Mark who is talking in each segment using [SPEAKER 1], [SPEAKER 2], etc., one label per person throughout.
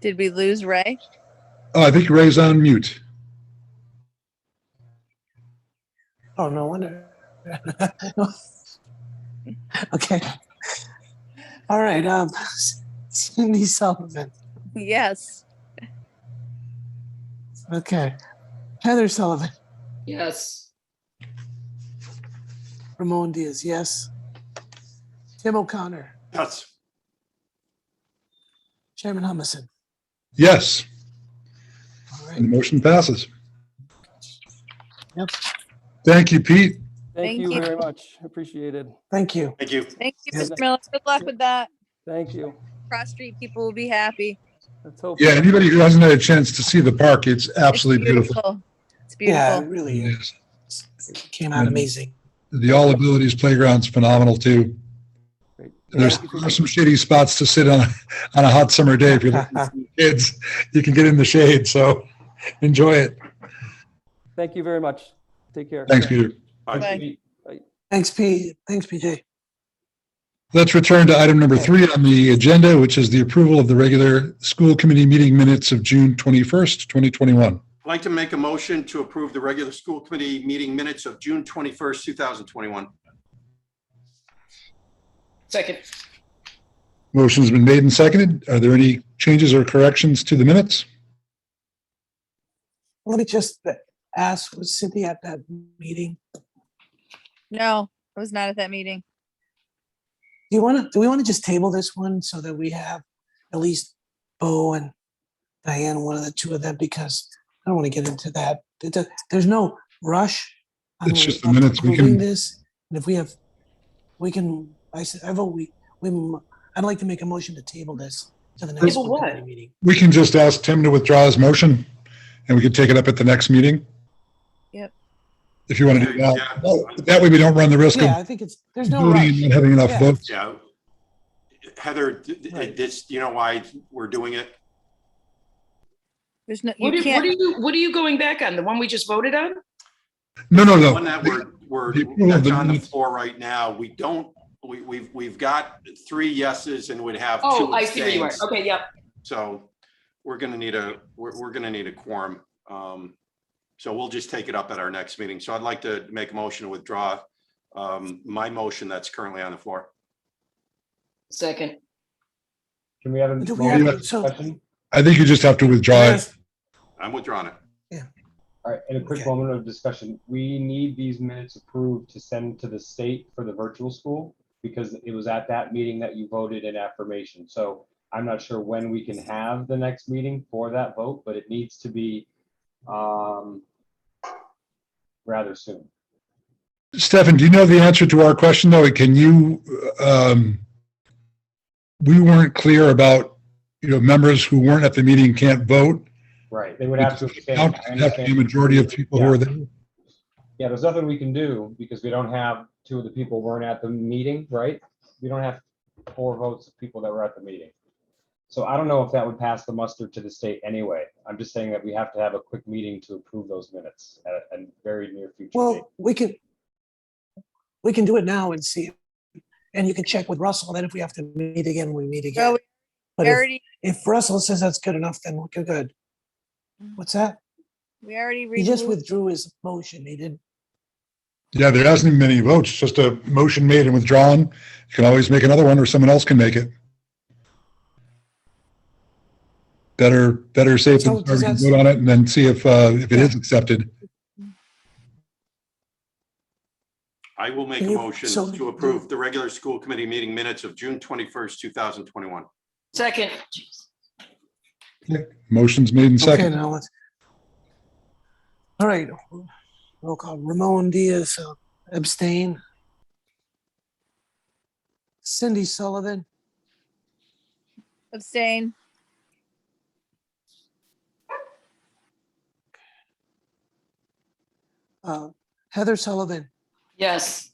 [SPEAKER 1] Did we lose Ray?
[SPEAKER 2] Oh, I think Ray's on mute.
[SPEAKER 3] Oh, no wonder. Okay. All right, um, Cindy Sullivan,
[SPEAKER 1] Yes.
[SPEAKER 3] okay. Heather Sullivan,
[SPEAKER 4] Yes.
[SPEAKER 3] Ramon Diaz, yes. Tim O'Connor,
[SPEAKER 5] Yes.
[SPEAKER 3] Chairman Humison.
[SPEAKER 2] Yes,
[SPEAKER 3] All
[SPEAKER 2] and
[SPEAKER 3] right,
[SPEAKER 2] the motion passes.
[SPEAKER 3] Yep.
[SPEAKER 2] Thank you, Pete.
[SPEAKER 1] Thank
[SPEAKER 6] Thank you
[SPEAKER 1] you.
[SPEAKER 6] very much. Appreciated.
[SPEAKER 3] thank you.
[SPEAKER 5] Thank you.
[SPEAKER 1] Thank you,
[SPEAKER 3] Yes.
[SPEAKER 1] Mr. Miller. Good luck with that.
[SPEAKER 6] Thank you.
[SPEAKER 1] Cross Street people will be happy.
[SPEAKER 6] Let's hope.
[SPEAKER 2] Yeah, anybody who hasn't had a chance to see the park, it's
[SPEAKER 1] It's
[SPEAKER 2] absolutely beautiful.
[SPEAKER 1] It's
[SPEAKER 3] Yeah, it
[SPEAKER 1] beautiful.
[SPEAKER 3] really
[SPEAKER 2] It
[SPEAKER 3] is.
[SPEAKER 2] is.
[SPEAKER 3] came out amazing.
[SPEAKER 2] The All Abilities Playground's phenomenal too.
[SPEAKER 6] Great.
[SPEAKER 2] There's
[SPEAKER 6] Yeah.
[SPEAKER 2] there's some shady spots to sit on, on a hot summer day. If you're looking for kids, you can get in the shade, so enjoy it.
[SPEAKER 6] Thank you very much. Take care.
[SPEAKER 2] Thanks, Peter.
[SPEAKER 1] Bye.
[SPEAKER 3] Thanks, P, thanks, PJ.
[SPEAKER 2] Let's return to item number three on the agenda, which is the approval of the regular school committee meeting minutes of June 21st, 2021.
[SPEAKER 5] I'd like to make a motion to approve the regular school committee meeting minutes of June 21st, 2021.
[SPEAKER 4] Second.
[SPEAKER 2] Motion's been made and seconded. Are there any changes or corrections to the minutes?
[SPEAKER 3] Let me just ask, was Cindy at that meeting?
[SPEAKER 1] No, I was not at that meeting.
[SPEAKER 3] Do you want to, do we want to just table this one so that we have at least Bo and Diane, one of the two of them, because I don't want to get into that. It does- There's no rush. on
[SPEAKER 2] It's just the
[SPEAKER 3] on
[SPEAKER 2] minutes, we can-
[SPEAKER 3] approving This, and if we have, we can, I said, I vote, we, we, m- I'd like to make a motion to table this to the next
[SPEAKER 4] Table
[SPEAKER 3] school
[SPEAKER 4] what?
[SPEAKER 3] committee meeting.
[SPEAKER 2] We can just ask Tim to withdraw his motion and we can take it up at the next meeting.
[SPEAKER 1] Yep.
[SPEAKER 2] If you want to do
[SPEAKER 5] Yeah.
[SPEAKER 2] that. Well, That way we don't run the risk
[SPEAKER 3] Yeah,
[SPEAKER 2] of
[SPEAKER 3] I think it's, there's no
[SPEAKER 2] voting
[SPEAKER 3] rush.
[SPEAKER 2] and not having enough
[SPEAKER 3] Yeah.
[SPEAKER 2] votes.
[SPEAKER 5] Yeah. Heather, th- th-
[SPEAKER 6] Right.
[SPEAKER 5] this, you know why we're doing it?
[SPEAKER 1] There's no,
[SPEAKER 4] What
[SPEAKER 1] you
[SPEAKER 4] are, what are
[SPEAKER 1] can't,
[SPEAKER 4] you, what are you going back on? The one we just voted on?
[SPEAKER 2] No, no,
[SPEAKER 5] The One that
[SPEAKER 2] no.
[SPEAKER 5] we're, we're,
[SPEAKER 2] The approval of
[SPEAKER 5] that's
[SPEAKER 2] the
[SPEAKER 5] on the
[SPEAKER 2] minutes.
[SPEAKER 5] floor right now. We don't, we, we've, we've got three yeses and would have two
[SPEAKER 4] Oh, I see where you are.
[SPEAKER 5] abstains.
[SPEAKER 4] Okay, yep.
[SPEAKER 5] So we're going to need a, we're, we're going to need a quorum. Um, So we'll just take it up at our next meeting. So I'd like to make a motion to withdraw um, my motion that's currently on the floor.
[SPEAKER 4] Second.
[SPEAKER 7] Can we have a
[SPEAKER 3] Do we
[SPEAKER 7] long
[SPEAKER 3] have- so-
[SPEAKER 7] discussion?
[SPEAKER 2] I think you just have to withdraw it.
[SPEAKER 5] I'm withdrawing it.
[SPEAKER 7] All right, in a quick
[SPEAKER 3] Okay.
[SPEAKER 7] moment of discussion, we need these minutes approved to send to the state for the virtual school because it was at that meeting that you voted in affirmation. So I'm not sure when we can have the next meeting for that vote, but it needs to be um, rather soon.
[SPEAKER 2] Stefan, do you know the answer to our question though? Can you, um, we weren't clear about, you know, members who weren't at the meeting can't vote.
[SPEAKER 7] Right, they would have to. abstain. I
[SPEAKER 2] Count- Have to be a
[SPEAKER 7] understand.
[SPEAKER 2] majority of people who
[SPEAKER 7] Yeah.
[SPEAKER 2] are there.
[SPEAKER 7] Yeah, there's nothing we can do because we don't have, two of the people weren't at the meeting, right? We don't have four votes of people that were at the meeting. So I don't know if that would pass the muster to the state anyway. I'm just saying that we have to have a quick meeting to approve those minutes at a- a very near future date.
[SPEAKER 3] Well, we can, we can do it now and see. And you can check with Russell, then if we have to meet again, we meet
[SPEAKER 1] Well,
[SPEAKER 3] again.
[SPEAKER 1] we
[SPEAKER 3] But if-
[SPEAKER 1] already,
[SPEAKER 3] if Russell says that's good enough, then we're good.
[SPEAKER 1] Mm-hmm.
[SPEAKER 3] What's that?
[SPEAKER 1] we already
[SPEAKER 3] He just
[SPEAKER 1] removed,
[SPEAKER 3] withdrew his motion. He didn't.
[SPEAKER 2] Yeah, there hasn't been many votes, just a motion made and withdrawn. You can always make another one or someone else can make it. Better, better safe
[SPEAKER 3] So
[SPEAKER 2] than
[SPEAKER 3] does
[SPEAKER 2] sorry.
[SPEAKER 3] that-
[SPEAKER 2] Vote on it and then see if, uh, if it is accepted.
[SPEAKER 5] I will make a
[SPEAKER 3] Can you-
[SPEAKER 5] motion
[SPEAKER 3] so-
[SPEAKER 5] to approve the regular school committee meeting minutes of June twenty-first, two thousand twenty-one.
[SPEAKER 4] Second.
[SPEAKER 2] Motion's made and
[SPEAKER 3] Okay,
[SPEAKER 2] second.
[SPEAKER 3] now let's. All right. Roll call. Ramon Diaz uh, abstain. Cindy Sullivan,
[SPEAKER 1] abstain.
[SPEAKER 3] uh, Heather Sullivan,
[SPEAKER 4] Yes.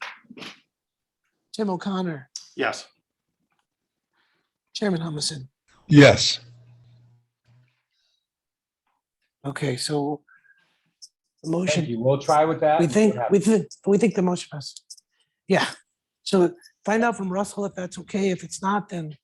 [SPEAKER 3] Tim O'Connor,
[SPEAKER 5] Yes,
[SPEAKER 3] Chairman Humison.
[SPEAKER 2] Yes.
[SPEAKER 3] Okay, so the
[SPEAKER 7] Thank
[SPEAKER 3] motion
[SPEAKER 7] you. We'll try with that.
[SPEAKER 3] We
[SPEAKER 7] and see what
[SPEAKER 3] think, we
[SPEAKER 7] happens.
[SPEAKER 3] think, we think the motion passed. Yeah, so find out from Russell if that's okay. If it's not, then